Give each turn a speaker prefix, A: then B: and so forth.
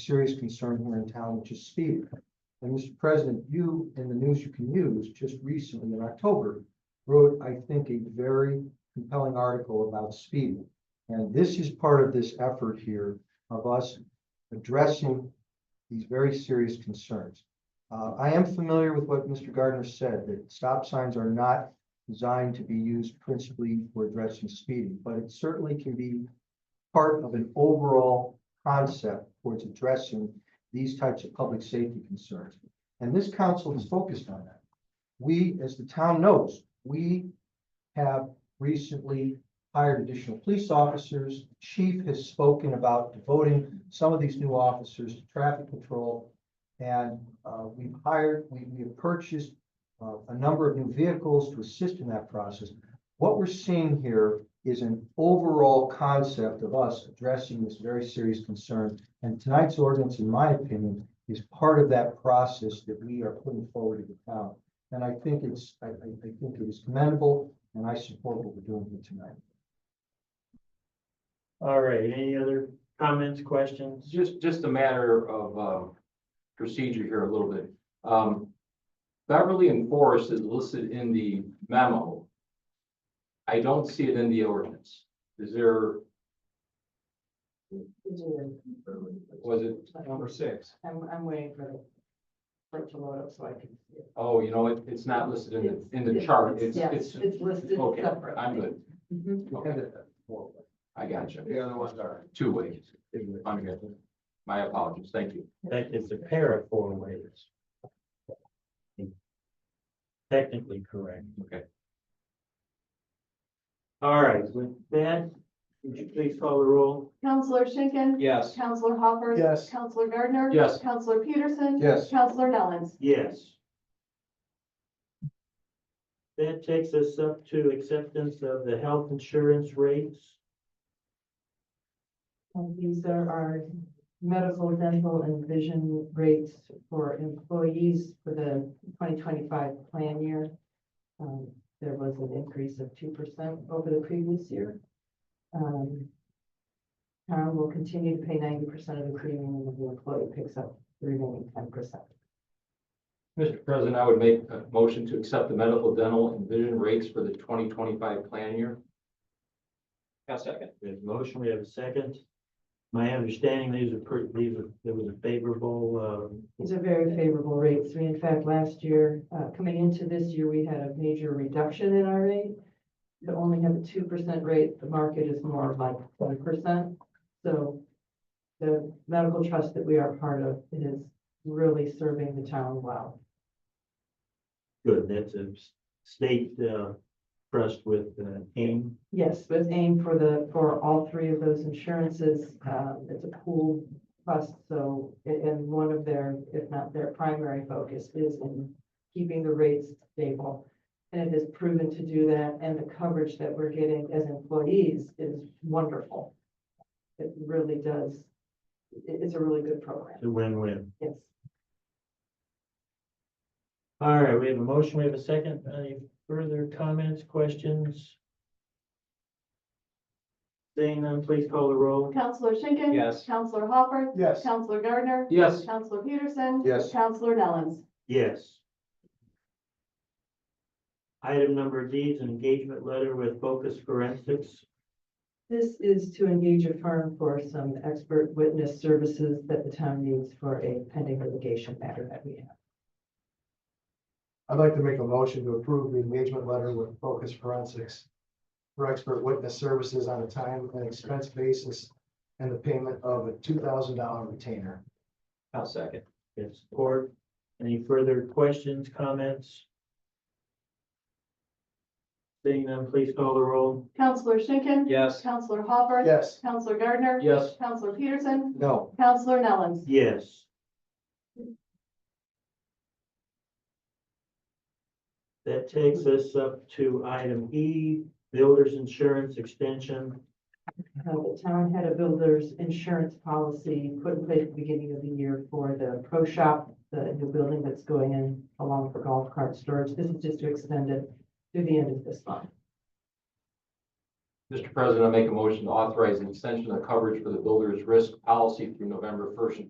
A: serious concern here in town, which is speed. And Mr. President, you, in the news you can use, just recently in October, wrote, I think, a very compelling article about speed. And this is part of this effort here of us addressing these very serious concerns. Uh, I am familiar with what Mr. Gardner said, that stop signs are not designed to be used principally for addressing speeding, but it certainly can be part of an overall concept towards addressing these types of public safety concerns. And this council is focused on that. We, as the town knows, we have recently hired additional police officers. Chief has spoken about devoting some of these new officers to traffic control. And uh, we've hired, we, we have purchased uh, a number of new vehicles to assist in that process. What we're seeing here is an overall concept of us addressing this very serious concern. And tonight's ordinance, in my opinion, is part of that process that we are putting forward to the town. And I think it's, I, I, I think it is commendable, and I support what we're doing here tonight.
B: All right, any other comments, questions?
C: Just, just a matter of, um, procedure here a little bit. Um, Beverly and Forest is listed in the memo. I don't see it in the ordinance. Is there, was it? Number six.
D: I'm, I'm waiting for the, for it to load up so I can see it.
C: Oh, you know, it, it's not listed in the, in the chart. It's,
D: Yeah,
C: it's,
D: It's listed
C: okay,
D: separately.
C: I'm good.
D: Mhm.
C: Okay, I got you. The other ones are. Two ways. I'm good. My apologies. Thank you.
B: That is a pair of four ways. Technically correct.
C: Okay.
B: All right, with that, would you please call the roll?
E: Counselor Schinkin.
C: Yes.
E: Counselor Hopper.
A: Yes.
E: Counselor Gardner.
C: Yes.
E: Counselor Peterson.
A: Yes.
E: Counselor Nellens.
B: Yes. That takes us up to acceptance of the health insurance rates.
D: And these are our medical, dental, and vision rates for employees for the twenty twenty-five plan year. Um, there was an increase of two percent over the previous year. Um, Town will continue to pay ninety percent of the premium, and the employee picks up the remaining ten percent.
C: Mr. President, I would make a motion to accept the medical, dental, and vision rates for the twenty twenty-five plan year. A second.
B: We have a motion, we have a second. My understanding, these are pretty, these are, there was a favorable, um,
D: These are very favorable rates. We, in fact, last year, uh, coming into this year, we had a major reduction in our rate. To only have a two percent rate, the market is more like one percent. So the medical trust that we are part of is really serving the town well.
B: good, that's a s- state, uh, trust with, uh, AIM.
D: Yes, with aim for the, for all three of those insurances, um, it's a pool trust, so, and, and one of their, if not their primary focus is in keeping the rates stable. And it has proven to do that, and the coverage that we're getting as employees is wonderful. It really does, it- it's a really good program,
B: It's a win-win.
D: yes.
B: All right, we have a motion, we have a second. Any further comments, questions? Seeing none, please call the roll.
E: Counselor Schinkin.
C: Yes.
E: Counselor Hopper.
A: Yes.
E: Counselor Gardner.
C: Yes.
E: Counselor Peterson.
A: Yes.
E: Counselor Nellens.
B: Yes. Item number D is an engagement letter with Focus Forensics.
D: This is to engage a firm for some expert witness services that the town needs for a pending litigation matter that we have.
A: I'd like to make a motion to approve the engagement letter with Focus Forensics for expert witness services on a time and expense basis and the payment of a two thousand dollar retainer.
C: A second.
B: Get support. Any further questions, comments? Seeing none, please call the roll.
E: Counselor Schinkin.
C: Yes.
E: Counselor Hopper.
A: Yes.
E: Counselor Gardner.
C: Yes.
E: Counselor Peterson.
A: No.
E: Counselor Nellens.
B: Yes. That takes us up to item E, builder's insurance extension.
D: Uh, The town had a builder's insurance policy put in place at the beginning of the year for the pro shop, the new building that's going in along for golf cart storage. This is just to extend it to the end of this month.
C: Mr. President, I make a motion to authorize an extension of coverage for the builder's risk policy through November first,